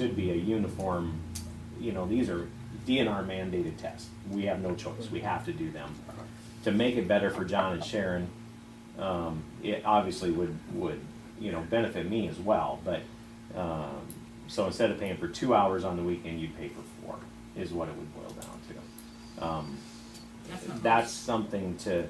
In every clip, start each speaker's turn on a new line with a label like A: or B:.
A: should be a uniform, you know, these are DNR mandated tests. We have no choice, we have to do them. To make it better for John and Sharon, um, it obviously would, would, you know, benefit me as well, but, um, so instead of paying for two hours on the weekend, you'd pay for four, is what it would boil down to. Um,
B: That's not
A: that's something to,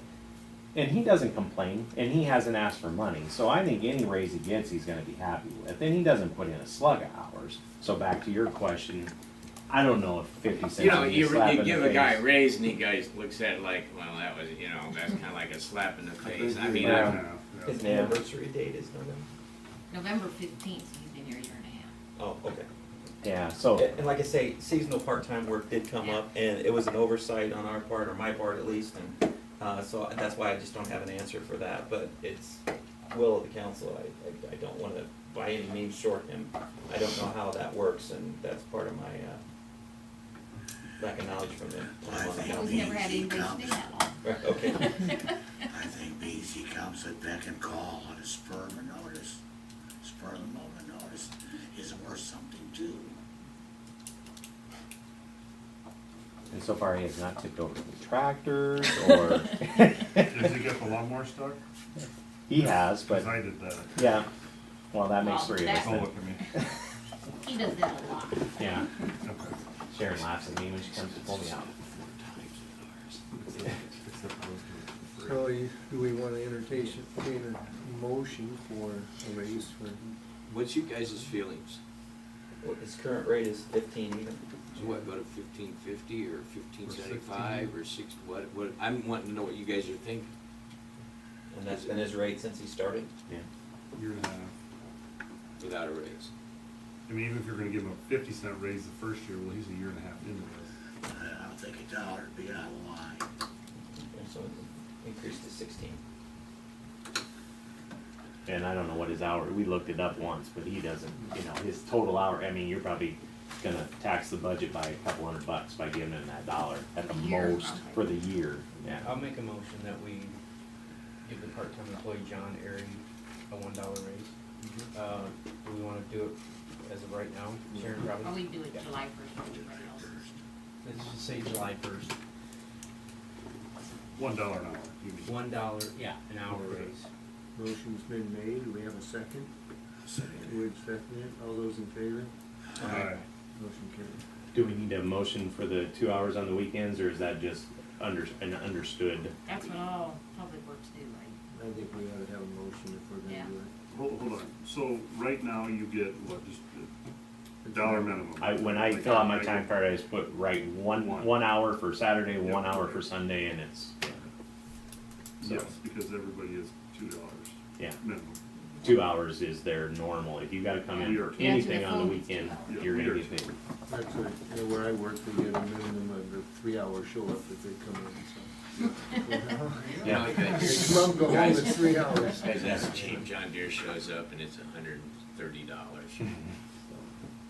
A: and he doesn't complain, and he hasn't asked for money, so I think any raise he gets, he's gonna be happy with, and he doesn't put in a slug of hours. So back to your question, I don't know if fifty cents.
C: You know,
A: would be
C: you,
A: slap
C: you
A: in the
C: give a guy a
A: face.
C: raise and he guys looks at it like, well, that was, you know, that's kind of like a slap in the face. I mean, I don't know.
D: His
A: Yeah.
D: anniversary date is November.
B: November fifteenth, he's been here a year and a
D: Oh, okay.
A: Yeah, so,
D: And and like I say, seasonal part-time work did come up, and it was an oversight on our part, or my part at least, and, uh, so I- that's why I just don't have an answer for that, but it's will of the council, I, I, I don't wanna by any means short him. I don't know how that works, and that's part of my, uh, lack of knowledge from him. when I'm on the
B: half.
D: council.
B: We've never had anybody stay that long.
D: Right, okay,
E: I think means he comes at beck and call on a spur of a notice. Spur of the moment notice is worth something too.
A: and so far he has not tipped over the tractors, or,
F: Did you get the lawnmower stuck?
A: he has, but,
F: Cause I did that.
A: yeah, well, that makes
B: Well,
A: three of us
F: Don't
A: then.
F: look at me.
B: He does that a lot.
A: Yeah,
F: Okay.
A: Sharon laughs at me when she comes to pull me out.
F: Except I was doing it for free.
G: So you- do we want to entertain, entertain a motion for a raise for,
H: What's you guys' feelings?
D: well, his current rate is fifteen even.
H: So what, go to fifteen fifty or fifteen seventy-five or six, what, what, I'm wanting to know what you guys are thinking.
D: And that's been his rate since he started?
A: Yeah,
F: Year and a half.
H: Without a raise.
F: I mean, even if you're gonna give him a fifty cent raise the first year, well, he's a year and a half into this.
E: I don't think Uh, a dollar would be out of line.
D: And so it increased to sixteen.
A: and I don't know what his hour, we looked it up once, but he doesn't, you know, his total hour, I mean, you're probably gonna tax the budget by a couple hundred bucks by giving him that dollar at the
B: Year,
A: most for the year, yeah.
I: I'll make a motion that we give the part-time employee John Airy a one dollar raise.
D: Mm-hmm.
I: Uh, do we wanna do it as of right now, Sharon
B: Or we
I: probably?
B: do it July first for everybody else.
I: Let's just say July first,
F: One dollar an hour, you mean?
I: one dollar, yeah, an hour raise.
G: motion's been made, do we have a second? Would second it, all those in favor?
F: Alright.
G: Motion carried.
A: Do we need a motion for the two hours on the weekends, or is that just under, an understood?
B: That's what all public works do, right?
G: I think we ought to have a motion if we're
B: Yeah.
G: gonna do
F: Hold, hold on. So right now you get what, just a dollar minimum?
A: I, when I fill out my time card, I just put right one,
F: One.
A: one hour for Saturday, one
F: Yep.
A: hour for Sunday, and it's,
F: Yes, because everybody is two dollars
A: yeah,
F: minimum.
A: two hours is their normal. If you gotta come in
F: You're-
A: anything
B: Yeah,
A: on the
B: it's two
A: weekend,
B: hours.
A: you're gonna
F: You're-
A: get paid.
G: it. That's what, you know, where I work, we get a minimum of a three-hour show up if they come in, so.
A: Yeah.
H: You know, you
G: They
H: guys-
G: come, go home, it's three hours.
C: Guys, that's cheap. John Deere shows up and it's a hundred and thirty dollars.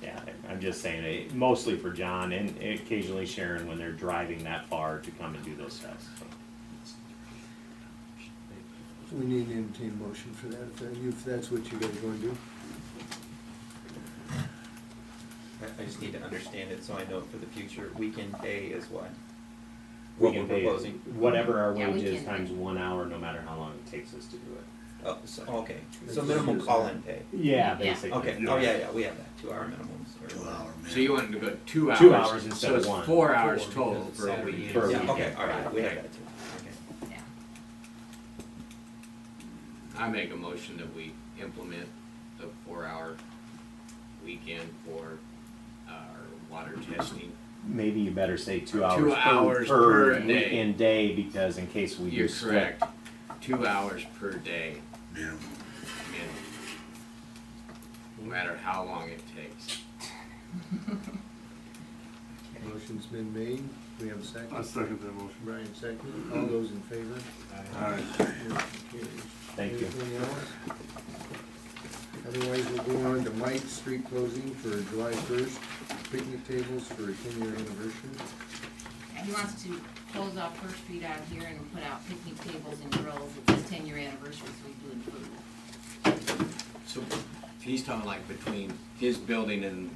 A: Yeah, I'm just saying, it mostly for John and occasionally Sharon when they're driving that far to come and do those tests.
G: We need an entertain motion for that, if that- if that's what you guys are gonna do.
D: I, I just need to understand it so I know for the future, weekend pay is what?
A: We
D: What
A: can
D: we're
A: pay
D: proposing.
A: Whatever our
B: Yeah, we
A: wage is
B: can.
A: times one hour, no matter how long it takes us to do it.
D: Oh, so, okay, so minimum call-in pay,
A: Yeah,
B: basically.
D: okay, oh, yeah, yeah, we have that, two-hour minimums. or-
E: Two hour minimum.
C: So you wanted to go two hours.
A: Two hours instead
C: So
A: of
C: it's
A: one.
C: four hours
I: Four,
C: total
I: because
C: for
I: Saturday
C: every
I: is-
C: year.
A: For a
D: Yeah,
A: weekend.
D: okay, all right, we have
C: Okay.
D: that too, okay.
B: Yeah.
C: I make a motion that we implement the four-hour weekend for our water testing.
A: Maybe you better say two hours. per-
C: hours per day.
A: Weekend day, because in case we do
C: You're
A: split.
C: correct. Two hours per day.
E: Minimum.
C: minimum, no matter how long it takes.
G: Motion's been made, we have a
F: I
G: second.
F: second that motion.
G: Brian second, all those in favor?
F: Alright.
A: Thank you.
G: Anything else? Otherwise, we'll go on to Mike's street closing for July first, picnic tables for a ten-year anniversary.
B: And He wants to close off First Street out here and put out picnic tables and grills. It's his ten-year anniversary, so he's doing food.
C: So he's talking like between his building and